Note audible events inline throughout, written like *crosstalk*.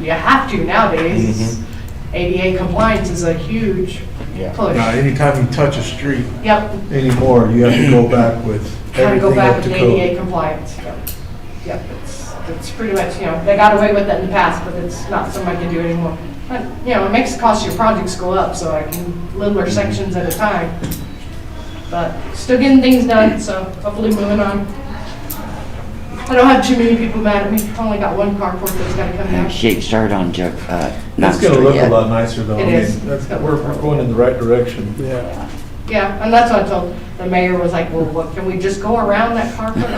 You have to nowadays. ADA compliance is a huge Yeah. Now, push. anytime you touch a street Yep, anymore, you have to go back with kind of go everything back up to with ADA code. compliance. Yep, Yep, it's, it's pretty much, you know, they got away with it in the past, but it's not something I can do anymore. But, you know, it makes the cost of your projects go up, so I can, Mm-hmm. littler sections at a time. But still getting things done, so hopefully moving on. I don't have too many people mad at me. I've only got one carport that's gotta come down. Shake start on Joe, uh, not It's gonna Street look a yet. lot nicer though. I It mean, is. that's- We're, we're going in the right direction. Yeah. Yeah, and that's what I told, the mayor was like, well, what, can we just go around that carpet?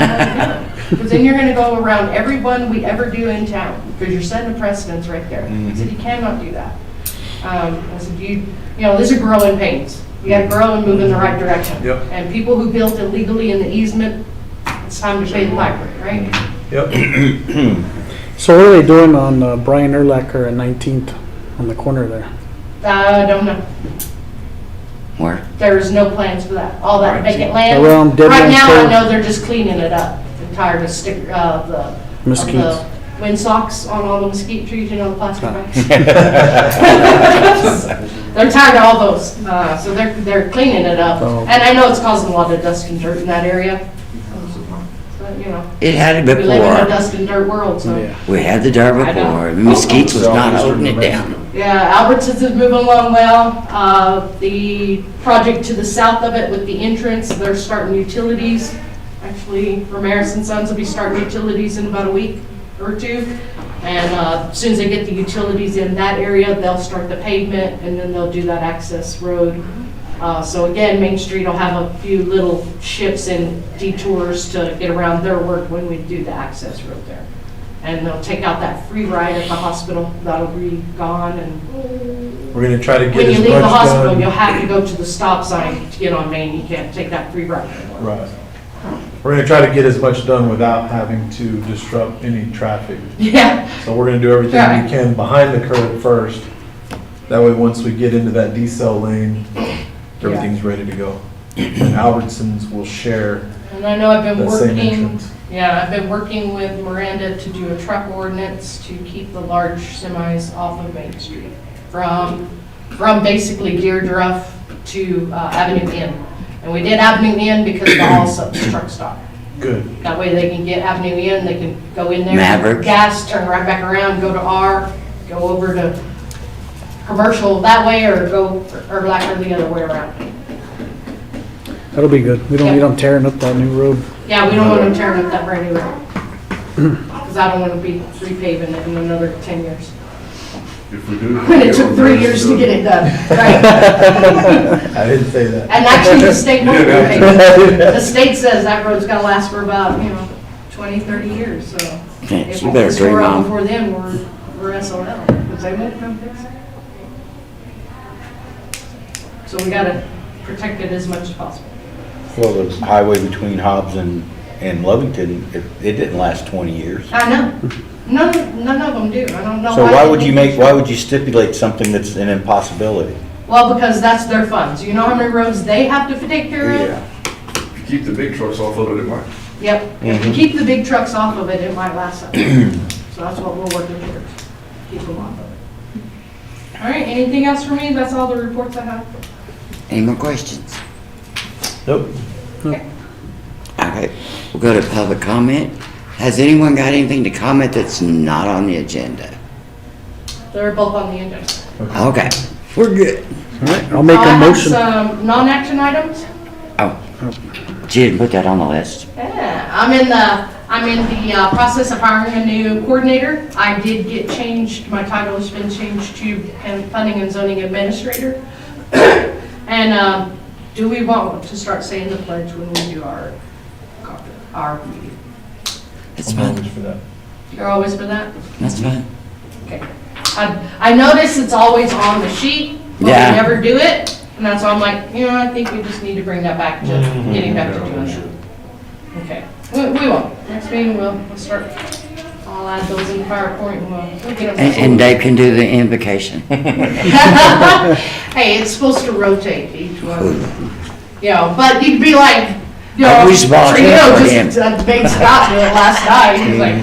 Because then you're gonna go around everyone we ever do in town, because you're setting a precedence right there. I said, you cannot do that. Um, I said, you, you know, these are growing pains. You gotta grow and move in the right direction. Yep. And people who built illegally in the easement, it's time to pay the piper, Mm-hmm. right? Yep, So what are they doing on uh, Brian Erlacher and 19th on the corner there? I don't know. *laughs* Where? There's no plans for that, all that vacant land. Around Dead Right Man's now, I Cove. know they're just cleaning it up. They're tired of stick, uh, the. of the Mosquitoes. Wind socks on all the mesquite trees, you know, the plastic bags. *laughs* They're tired of all those, uh, so they're, they're cleaning it up. Oh. And I know it's causing a lot of dust and dirt in that area. But, you know, It had it we live in a before. dust and dirt world, so. We had the dirt I know. Oh, before. Mesquite oh, was not holding it down. Yeah, Albertsons is moving along well. Uh, The project to the south of it with the entrance, they're starting utilities. Actually, Ramirez and Sons will be starting utilities in about a week or two. And uh, as soon as they get the utilities in that area, they'll start the pavement and then they'll do that access road. Uh, So again, Main Street will have a few little shifts and detours to get around their work when we do the access road there. And they'll take out that free ride at the hospital, that'll be gone, and we're gonna try to when get you as much leave the hospital, you'll done. have to go to the stop sign to get on Main, you can't take that free ride *laughs* anymore. Right. We're gonna try to get as much done without having to disrupt any traffic. Yeah, So we're gonna do everything Right. we can behind the curb first. That way, once we get into that decel lane, everything's ready to go. And Albertsons will share and I know I've been that same working, entrance. yeah, I've been working with Miranda to do a truck ordinance to keep the large semis off of Main Street. From, from basically Deerdruff to uh, Avenue N. And we did Avenue N because of the all-subs truck stop. Good. That way they can get Avenue in, they can go in there. Maverick. Gas, turn right back around, go to R, go over to commercial that way or go, or like or the other way around. That'll be good. We don't need them tearing up that new road. Yeah, we don't want them tearing up that brand new road. Because I don't want to be repaving it in another 10 years. If we do. *laughs* When it took three years to get it done. Right. I didn't say that. And actually, the *laughs* state won't Yeah. repave it. The state says that road's gonna last for about, you know, 20, 30 years, so. Yeah, if you better it's tore dream up on. Before then, we're, we're SOL, because they won't come fix it. So we gotta protect it as much as possible. Well, the highway between Hobbs and, and Lovington, it, it didn't last twenty years. I know, none, none of them do, I don't know why. So why they would you think- make, why would you stipulate something that's an impossibility? Well, because that's their funds, you know how many roads they have to take care of? Keep the big trucks off of it, it might. Yep, if we Mhm. keep the big trucks off of it, it might last up. So that's what we're working towards, keep them off of it. All right, anything else for me? That's all the reports I have. Any more questions? Nope. All right, we'll go to public comment. Has anyone got anything to comment that's not on the agenda? They're both on the agenda. Okay, we're good. All right, I'll make Uh, a motion. I have some non-action items. She Oh, didn't put that on the list. Yeah, I'm in the, I'm in the uh, process of hiring a new coordinator. I did get changed, my title has been changed to Pan- Planning and Zoning Administrator. *clears throat* And um, do we want to start saying the pledge when we do our, our meeting? That's I'm fine, always for that. You're always for that? that's fine. Okay. I I notice it's always on the sheet, but we Yeah. never do it. And that's why I'm like, you know, I think we just need to bring that back to getting back to Yeah, we doing should. that. Okay. We we won't. Next meeting, we'll we'll start. I'll add those in the PowerPoint and we'll- we'll get them. And, and Dave can do the invocation. *laughs* *laughs* Hey, it's supposed to rotate each one. You know, but you'd be like, you know. I wish Bob Trino had for just uh, made Scott do it last night. He's like,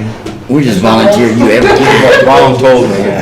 We just volunteer you everything. Ron told me, yeah.